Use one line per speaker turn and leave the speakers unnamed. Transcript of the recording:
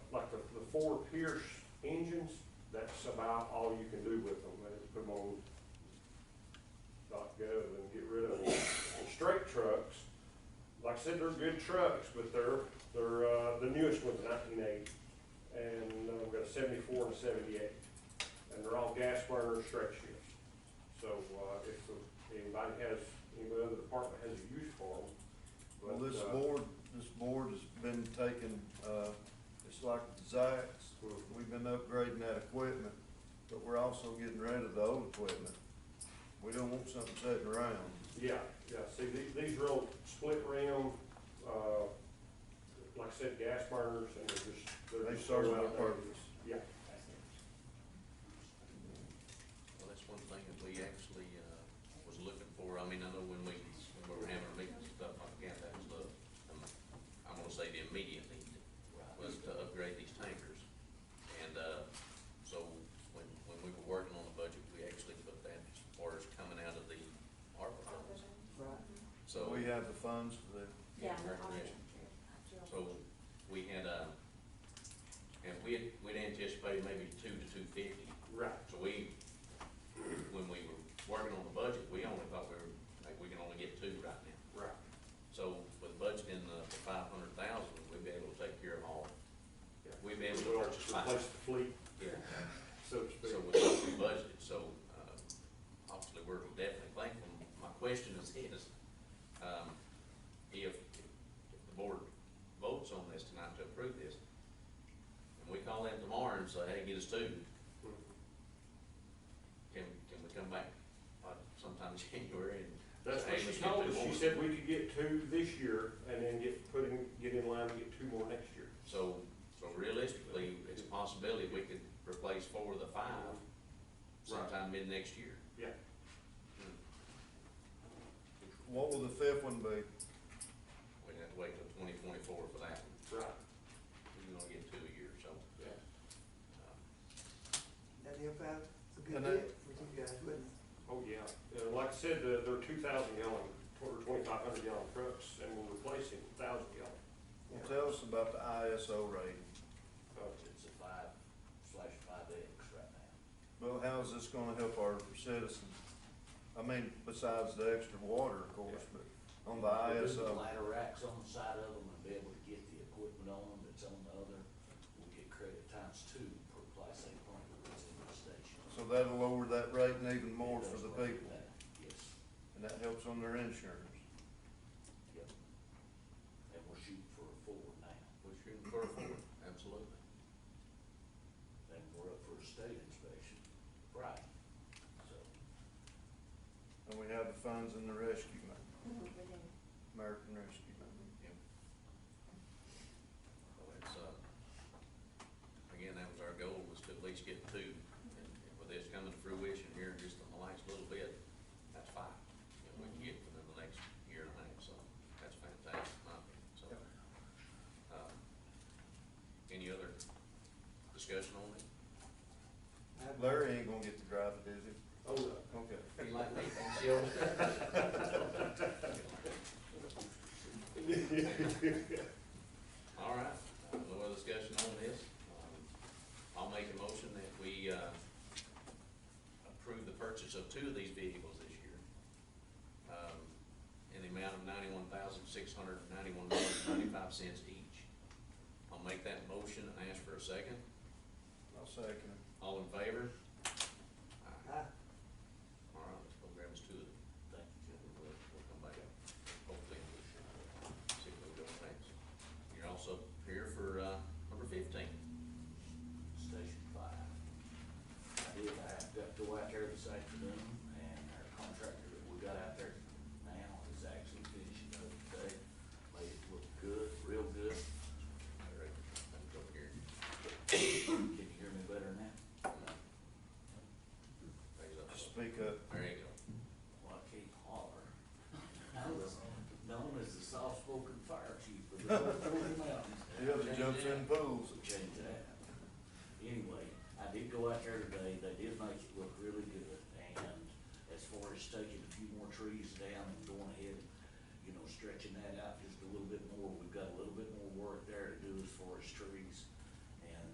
four Pierce engines, that's about all you can do with them, they just put them on dot gov and get rid of them. And Straight trucks, like I said, they're good trucks, but they're, they're, uh, the newest one's nineteen eighty, and uh, we've got a seventy-four and a seventy-eight, and they're all gas burners, straight shifts. So, uh, if the- anybody has, any other department has a use for them.
Well,
but,
this
uh,
board, this board has been taking, uh, it's like the Zacks, we've been upgrading that equipment, but we're also getting rid of the old equipment. We don't want something sitting around.
Yeah, yeah, see, these, these are all split rim, uh, like I said, gas burners, and they're just, they're
They
just
serve
so
their
outdated.
purpose.
Yeah,
Well, that's one thing that we actually, uh, was looking for, I mean, I know when we, when we were having our meetings and stuff like that, that was the, um, I'm gonna say the immediate need was to upgrade these tankers. And, uh, so when, when we were working on the budget, we actually put that as far as coming out of the ARPA funds. So.
We have the funds for that.
Yeah.
Recreation. So we had, uh, and we had, we'd anticipated maybe two to two fifty.
right,
So we, when we were working on the budget, we only thought we were, like, we can only get two right now.
right,
So with budgeting the five hundred thousand, we'd be able to take care of all.
yeah.
We'd be able to
We'll
purchase five.
Replace the fleet,
Yeah.
so to speak.
So with what we budgeted, so, uh, obviously, we're definitely thankful. My question is, is, um, if if the board votes on this tonight to approve this, and we call them tomorrow and say, hey, get us two,
Mhm.
can, can we come back uh, sometime in January and?
That's
say,
what
"Hey,
she
let's
told
get
us,
two
she
more."
said we could get two this year, and then get, put in, get in line to get two more next year.
So, so realistically, it's a possibility we could replace four of the five sometime mid-next year.
Yeah,
What will the fifth one be?
We'd have to wait till twenty twenty-four for that.
right,
We're gonna get two a year, so.
yeah.
um,
That help out a good
And that-
bit with you guys, wouldn't it?
Oh, yeah, and like I said, they're, they're two thousand gallon, or twenty-five hundred gallon trucks, and we're replacing thousand gallon.
Well, tell us about the ISO rating.
Uh,
It's a five slash five X right now.
Well, how is this gonna help our citizens? I mean, besides the extra water, of course, but on the
We'll do the
ISO,
Ladder racks on the side of them and be able to get the equipment on them that's on the other. We'll get credit times two per class A plant that's in the station.
so that'll lower that rating even more
It
for
does
the
work
people,
that, Yes,
and that helps on their insurance.
yep. And we're shooting for a four now.
We're shooting for a four, absolutely.
And we're up for a state inspection Friday. So
And we have the funds in the rescue money,
Mhm, we do.
American Rescue Money.
Yep. So it's, uh, again, that was our goal, was to at least get two, and and with this coming to fruition here, just in the last little bit, that's five. And we can get within the next year and a half, so that's fantastic, in my opinion, so. um, Any other discussion on it?
Larry ain't gonna get to drive it, is he?
Oh, no.
Okay.
You like me, All right, uh, no other discussion on this. Um, I'll make a motion that we, uh, approve the purchase of two of these vehicles this year. Um, in the amount of ninety-one thousand, six hundred and ninety-one dollars, ninety-five cents each. I'll make that motion and ask for a second.
I'll second it.
All in favor? Aye.
I,
All right, let's go grab us two of them.
thank you, Jim.
We'll, we'll come back up, hopefully, we'll see what we're doing next. You're also here for, uh, number fifteen.
Station Five. I did, I got to go out there this afternoon, and our contractor that we got out there now is actually finishing up today. Made it look good, real good.
All right, I'm over here.
Can you hear me better now?
Raise up.
Speak up.
There you go.
Well, I can't holler. I was known as the soft-spoken fire chief of the Rocky Mountains.
The other jumps in pools.
So change that. Anyway, I did go out there today, they did make it look really good, and as far as taking a few more trees down and going ahead, and, you know, stretching that out just a little bit more, we've got a little bit more work there to do as far as trees.